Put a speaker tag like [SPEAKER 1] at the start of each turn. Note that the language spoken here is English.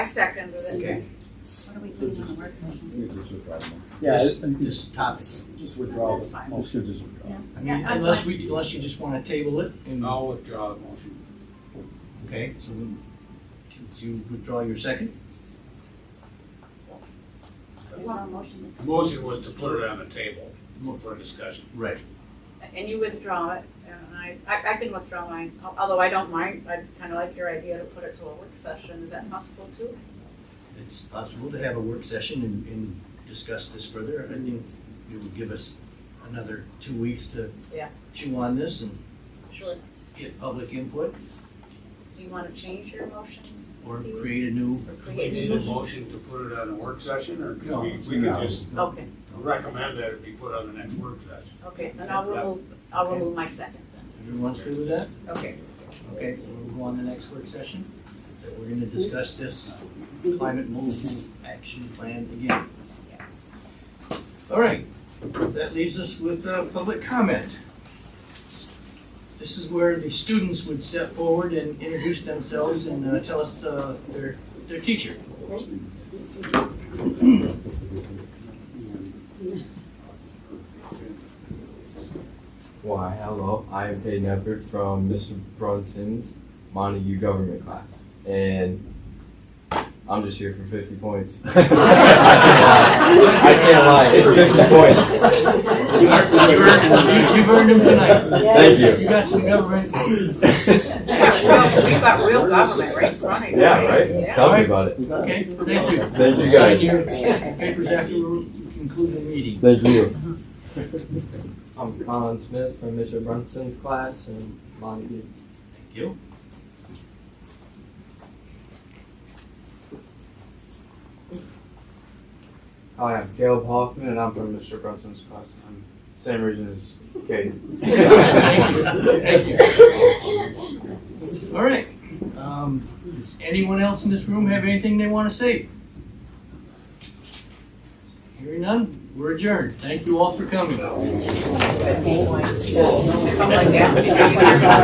[SPEAKER 1] I second it.
[SPEAKER 2] Okay.
[SPEAKER 3] What are we putting on the work session?
[SPEAKER 4] You just withdraw the motion.
[SPEAKER 5] Yeah,
[SPEAKER 2] Just-
[SPEAKER 5] it- it-
[SPEAKER 2] Just topic.
[SPEAKER 5] just withdraw
[SPEAKER 3] That's
[SPEAKER 5] the
[SPEAKER 3] fine.
[SPEAKER 4] You
[SPEAKER 5] motion.
[SPEAKER 4] should just withdraw.
[SPEAKER 3] Yeah.
[SPEAKER 2] I mean,
[SPEAKER 3] Yeah, I'm
[SPEAKER 2] unless we, unless you just wanna table it and,
[SPEAKER 6] I'll withdraw the motion.
[SPEAKER 2] okay, so we, so you withdraw your second?
[SPEAKER 3] There's no motion this.
[SPEAKER 6] The motion was to put it on the table for discussion.
[SPEAKER 2] Right.
[SPEAKER 1] And you withdraw it, and I, I, I can withdraw mine, al- although I don't mind, I kinda like your idea to put it to a work session, is that possible too?
[SPEAKER 2] It's possible to have a work session and, and discuss this further. I think it would give us another two weeks to
[SPEAKER 1] Yeah.
[SPEAKER 2] chew on this and
[SPEAKER 1] Sure.
[SPEAKER 2] get public input
[SPEAKER 1] Do you wanna change your motion,
[SPEAKER 2] or
[SPEAKER 1] Steve?
[SPEAKER 2] create a new.
[SPEAKER 1] Or
[SPEAKER 6] Do we
[SPEAKER 1] create
[SPEAKER 6] need
[SPEAKER 1] a
[SPEAKER 6] a
[SPEAKER 1] motion?
[SPEAKER 6] motion to put it on a work session, or could
[SPEAKER 2] No.
[SPEAKER 6] we, we could
[SPEAKER 4] No.
[SPEAKER 6] just
[SPEAKER 1] Okay,
[SPEAKER 6] recommend that it be put on the next work session?
[SPEAKER 1] okay, then I'll remove, I'll remove my second then,
[SPEAKER 2] Everyone's good with that?
[SPEAKER 1] okay.
[SPEAKER 2] Okay, so we'll go on to the next work session. We're gonna discuss this climate movement action plan again. All right, that leaves us with uh, public comment. This is where the students would step forward and introduce themselves and uh, tell us uh, their, their teacher.
[SPEAKER 7] Why, hello, I am Peyton Eppert from Mr. Brunson's Montague government class. And I'm just here for 50 points. I can't lie, it's 50 points.
[SPEAKER 2] You earned- You've earned them tonight.
[SPEAKER 7] Thank
[SPEAKER 2] You
[SPEAKER 7] you.
[SPEAKER 2] got some government.
[SPEAKER 1] We've got real- we've got real government right in front of you.
[SPEAKER 7] Yeah, right?
[SPEAKER 1] Yeah.
[SPEAKER 7] Tell me about it.
[SPEAKER 2] Okay, thank you.
[SPEAKER 7] Thank you,
[SPEAKER 2] Sign
[SPEAKER 7] guys.
[SPEAKER 2] your Papers after we conclude the meeting.
[SPEAKER 7] Thank you. I'm Colin Smith from Mr. Brunson's class in Montague.
[SPEAKER 2] Thank you.
[SPEAKER 8] Hi, I'm Caleb Hoffman, and I'm from Mr. Brunson's class. I'm same reason as Kate.
[SPEAKER 2] Thank you. Thank you. All right. Um, Does anyone else in this room have anything they want to say? Hearing none, we're adjourned. Thank you all for coming.
[SPEAKER 1] Come like that.